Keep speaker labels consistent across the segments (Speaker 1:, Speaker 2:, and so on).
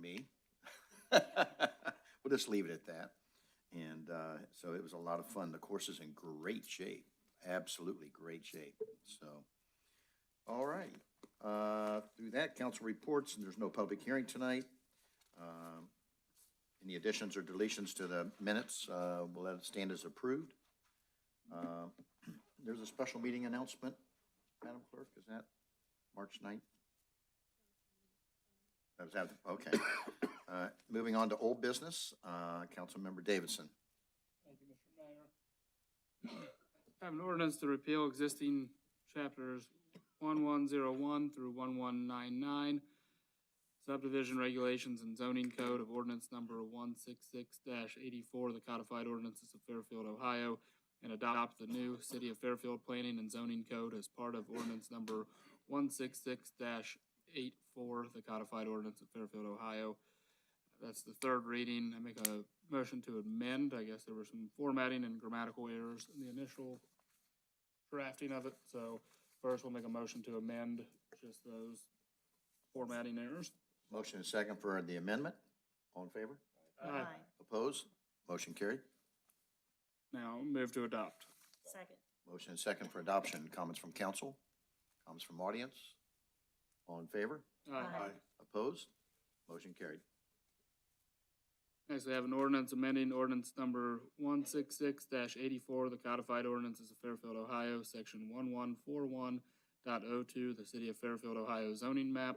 Speaker 1: me. We'll just leave it at that. And uh, so it was a lot of fun. The course is in great shape, absolutely great shape, so. All right, Uh, through that, council reports, and there's no public hearing tonight. Um, Any additions or deletions to the minutes, uh, we'll let it stand as approved. Uh, There's a special meeting announcement, Madam Clerk, is that March 9th? That was after, okay. Uh, Moving on to old business, uh, Councilmember Davidson.
Speaker 2: Thank you, Mr. Mayor. I Have an ordinance to repeal existing chapters one-one-zero-one through one-one-nine-nine, subdivision regulations and zoning code of ordinance number one-six-six eighty-four, the codified ordinances of Fairfield, Ohio, and adopt the new City of Fairfield Planning and Zoning Code as part of ordinance number one-six-six eight-four, the codified ordinance of Fairfield, Ohio, that's the third reading. I make a motion to amend. I guess there were some formatting and grammatical errors in the initial drafting of it. So first, we'll make a motion to amend just those formatting errors.
Speaker 1: Motion and second for the amendment. All in favor?
Speaker 2: Aye.
Speaker 1: Opposed? Motion carried.
Speaker 2: Now, move to adopt.
Speaker 3: Second.
Speaker 1: Motion and second for adoption. Comments from council? Comments from audience? All in favor?
Speaker 3: Aye.
Speaker 1: Opposed? Motion carried.
Speaker 2: Next, we have an ordinance amending ordinance number one six six eighty-four, the codified ordinances of Fairfield, Ohio, section one one four one dot oh two, the city of Fairfield, Ohio zoning map.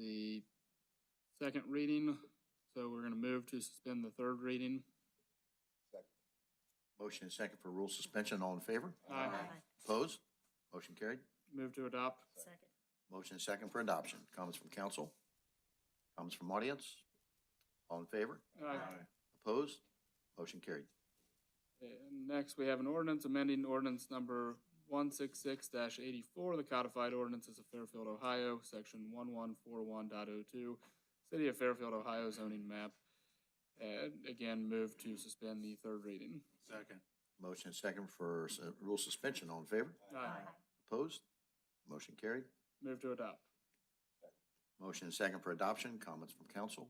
Speaker 2: The second reading, so we're gonna move to suspend the third reading.
Speaker 1: Motion and second for rule suspension. All in favor?
Speaker 2: Aye.
Speaker 1: Opposed? Motion carried.
Speaker 2: Move to adopt.
Speaker 3: Second.
Speaker 1: Motion and second for adoption. Comments from council? Comments from audience? All in favor? Opposed? Motion carried.
Speaker 2: And next, we have an ordinance amending ordinance number one six six eighty-four, the codified ordinances of Fairfield, Ohio, section one one four one dot oh two, city of Fairfield, Ohio zoning map. And again, move to suspend the third reading.
Speaker 4: Second.
Speaker 1: Motion and second for uh, rule suspension. All in favor? Opposed? Motion carried.
Speaker 2: Move to adopt.
Speaker 1: Motion and second for adoption. Comments from council?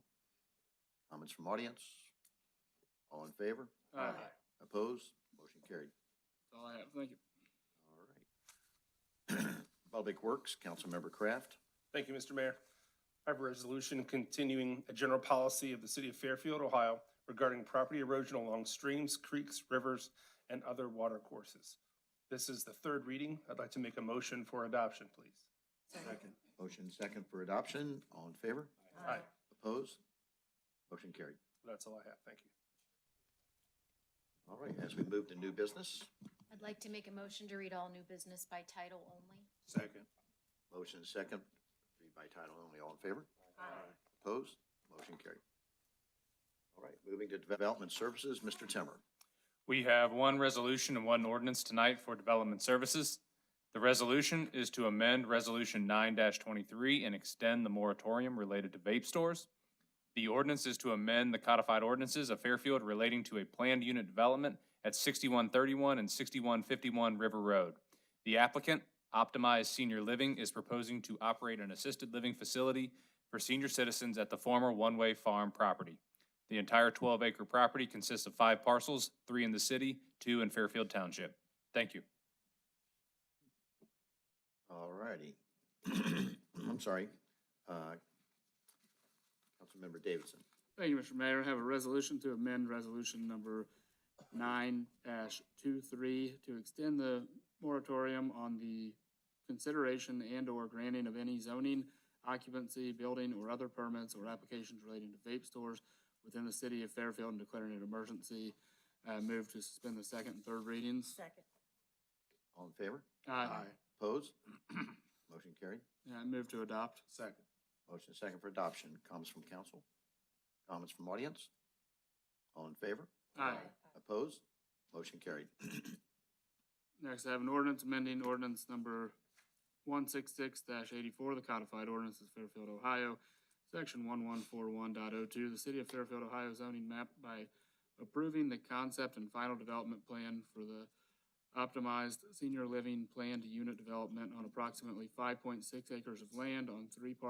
Speaker 1: Comments from audience? All in favor?
Speaker 2: Aye.
Speaker 1: Opposed? Motion carried.
Speaker 2: That's all I have. Thank you.
Speaker 1: All right. Public Works, Councilmember Kraft.
Speaker 4: Thank you, Mr. Mayor. I have a resolution continuing a general policy of the city of Fairfield, Ohio regarding property erosion along streams, creeks, rivers, and other water courses. This is the third reading. I'd like to make a motion for adoption, please.
Speaker 3: Second.
Speaker 1: Motion and second for adoption. All in favor?
Speaker 4: Aye.
Speaker 1: Opposed? Motion carried.
Speaker 4: That's all I have. Thank you.
Speaker 1: All right, as we move to new business,
Speaker 5: I'd like to make a motion to read all new business by title only.
Speaker 4: Second.
Speaker 1: motion and second, read by title only. All in favor?
Speaker 3: Aye.
Speaker 1: Opposed? Motion carried. All right, moving to Development Services, Mr. Timmer.
Speaker 6: We have one resolution and one ordinance tonight for Development Services. The resolution is to amend Resolution nine twenty-three and extend the moratorium related to vape stores. The ordinance is to amend the codified ordinances of Fairfield relating to a planned unit development at sixty-one thirty-one and sixty-one fifty-one River Road. The applicant, Optimize Senior Living, is proposing to operate an assisted living facility for senior citizens at the former one-way farm property. The entire twelve acre property consists of five parcels, three in the city, two in Fairfield Township. Thank you.
Speaker 1: All righty. I'm sorry. Uh, Councilmember Davidson.
Speaker 2: Thank you, Mr. Mayor. I have a resolution to amend resolution number nine 23 to extend the moratorium on the consideration and/or granting of any zoning, occupancy, building, or other permits or applications relating to vape stores within the city of Fairfield and declaring an emergency. Uh, move to suspend the second and third readings.
Speaker 3: Second.
Speaker 1: All in favor?
Speaker 2: Aye.
Speaker 1: Opposed? Motion carried.
Speaker 2: Uh, move to adopt.
Speaker 4: Second.
Speaker 1: Motion is second for adoption. Comments from council? Comments from audience? All in favor?
Speaker 2: Aye.
Speaker 1: Opposed? Motion carried.
Speaker 2: Next, I have an ordinance amending ordinance number one six six eighty-four, the codified ordinances of Fairfield, Ohio, section one one four one oh the city of Fairfield, Ohio zoning map by approving the concept and final development plan for the optimized senior living planned unit development on approximately five point six acres of land on three parcels